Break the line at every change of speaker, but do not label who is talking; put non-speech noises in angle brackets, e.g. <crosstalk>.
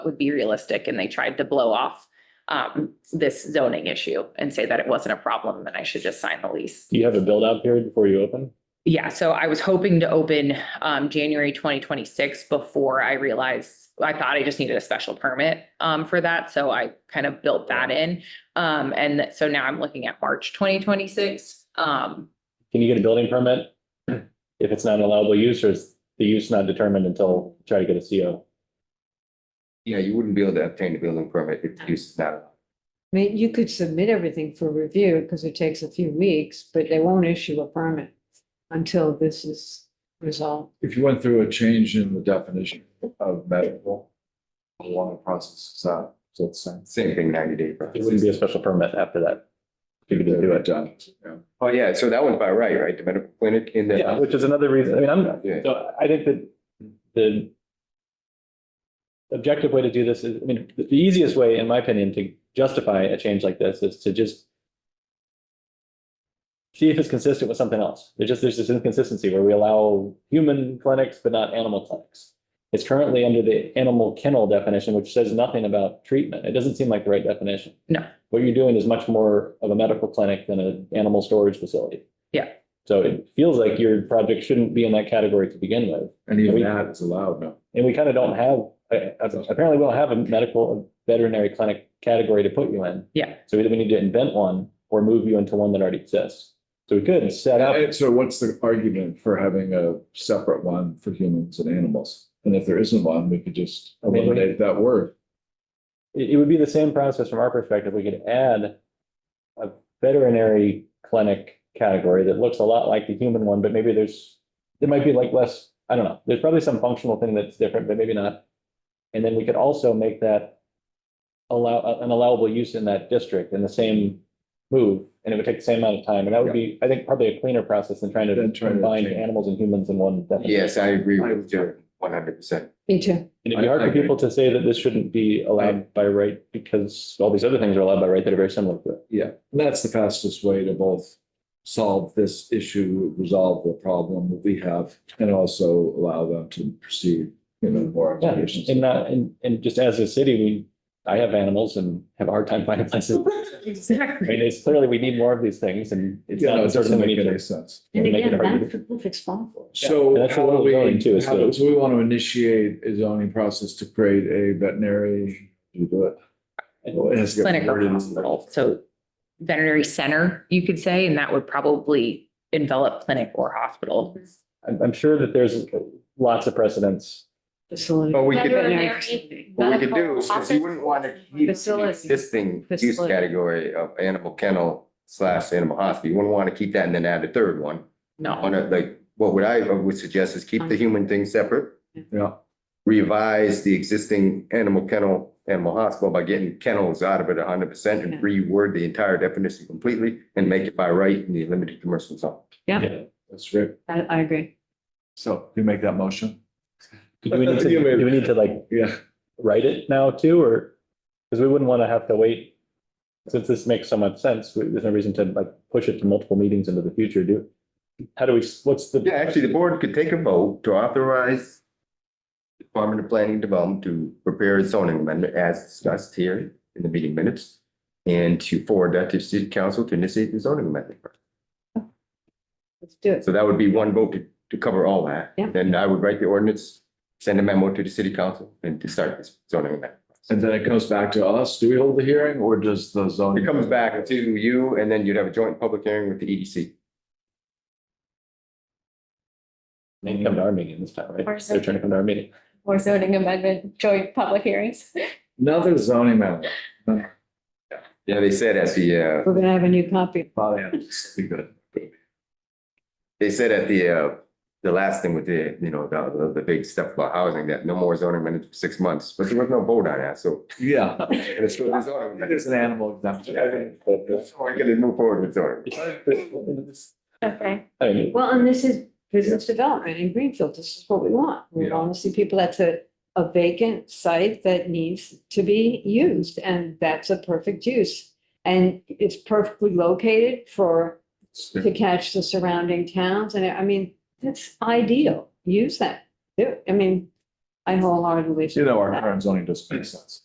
would be realistic and they tried to blow off um, this zoning issue and say that it wasn't a problem and I should just sign the lease.
Do you have a build out period before you open?
Yeah, so I was hoping to open um January twenty twenty-six before I realized, I thought I just needed a special permit um for that, so I kind of built that in. Um, and that- so now I'm looking at March twenty twenty-six. Um,
Can you get a building permit? <clears throat> If it's not an allowable use or is the use not determined until try to get a CO?
Yeah, you wouldn't be able to obtain a building permit if the use is not.
I mean, you could submit everything for review because it takes a few weeks, but they won't issue a permit until this is resolved.
If you went through a change in the definition of medical, a lot of processes out, so it's.
Same thing, ninety day.
It wouldn't be a special permit after that. If you could do it.
Done. yeah.
Oh, yeah, so that one's by right, right? The medical clinic in
Yeah,
the.
which is another reason, I mean, I'm,
Yeah.
so I think that the objective way to do this is, I mean, the easiest way, in my opinion, to justify a change like this is to just see if it's consistent with something else. There's just, there's this inconsistency where we allow human clinics, but not animal clinics. It's currently under the animal kennel definition, which says nothing about treatment. It doesn't seem like the right definition.
No.
What you're doing is much more of a medical clinic than an animal storage facility.
Yeah.
So it feels like your project shouldn't be in that category to begin with.
And even that is allowed now.
And we kind of don't have, uh, apparently we don't have a medical veterinary clinic category to put you in.
Yeah.
So either we need to invent one or move you into one that already exists. So we could set up,
And So what's the argument for having a separate one for humans and animals? And if there isn't one, we could just
I mean, we-
eliminate that word.
it, it would be the same process from our perspective. We could add a veterinary clinic category that looks a lot like the human one, but maybe there's, there might be like less, I don't know. There's probably some functional thing that's different, but maybe not. And then we could also make that allow, uh, an allowable use in that district in the same move. And it would take the same amount of time. And that would be, I think, probably a cleaner process than trying to
Than trying to
combine
change.
animals and humans in one definition.
Yes, I agree with you one hundred percent.
Me too.
And it'd be
I-
hard
I
for
agree.
people to say that this shouldn't be allowed by right because all these other things are allowed by right that are very similar to it.
Yeah, and that's the fastest way to both solve this issue, resolve the problem that we have, and also allow them to proceed, you know, more.
Yeah,
applications.
and not, and, and just as a city, we, I have animals and have a hard time finding <laughs> places. I
exactly.
mean, it's clearly we need more of these things and it's
Yeah, no,
not
it doesn't
something we
make
need
any
to.
sense.
And again, Make it harder. that's
the perfect spot for it.
So
that's
how
what
do
we're
we,
going to, is
how
the-
do- so we want to initiate a zoning process to create a veterinary, you do it. Well, it has to get
Clinic or
worded in-
hospital, so veterinary center, you could say, and that would probably envelop clinic or hospital.
I'm, I'm sure that there's lots of precedents.
Facility.
Well, we could-
Veterinary,
What we could do is,
medical,
because you wouldn't want to keep the
Facility.
existing use
Facility.
category of animal kennel slash animal hospital, you wouldn't want to keep that and then add a third one. On
No,
a, like, what would I, I would suggest is keep the human thing separate,
Yeah,
revise the existing animal kennel, animal hospital by getting kennels out of it hundred percent and
Yeah.
reword the entire definition completely and make it by right in the limited commercial zone.
that's great.
I, I agree.
So you make that motion?
Do we need
<laughs>
to, do we need to like
Yeah.
write it now too, or? Because we wouldn't want to have to wait. Since this makes so much sense, we- there's no reason to like push it to multiple meetings into the future, do. How do we, what's the?
Yeah, actually, the board could take a vote to authorize the Department of Planning and Development to prepare a zoning amendment as discussed here in the meeting minutes and to forward that to city council to initiate the zoning amendment.
Let's do it.
So that would be one vote to, to cover all that.
Yeah.
Then I would write the ordinance, send a memo to the city council and to start this zoning amendment.
And then it comes back to us. Do we hold the hearing or does the zoning?
It comes back to you and then you'd have a joint public hearing with the E EDC.
They can come to our meeting this time, right?
Or
They're trying to come to our meeting.
or zoning amendment, joint public hearings.
Another zoning amendment.
Yeah, they said at the, uh,
We're gonna have a new copy.
Probably have to be good.
they said at the, uh, the last thing with the, you know, the, the, the big stuff about housing, that no more zoning amendments for six months, but there was no vote on that, so.
Yeah.
and it's still a zoning amendment.
There's an animal exemption.
So I gotta move forward with zoning.
Okay.
I mean,
Well, and this is business development in Greenfield. This is what we want. We
Yeah.
want to see people, that's a, a vacant site that needs to be used and that's a perfect use. And it's perfectly located for to catch the surrounding towns. And I mean, that's ideal. Use that. Do- I mean, I wholeheartedly.
You know, our current zoning doesn't make sense.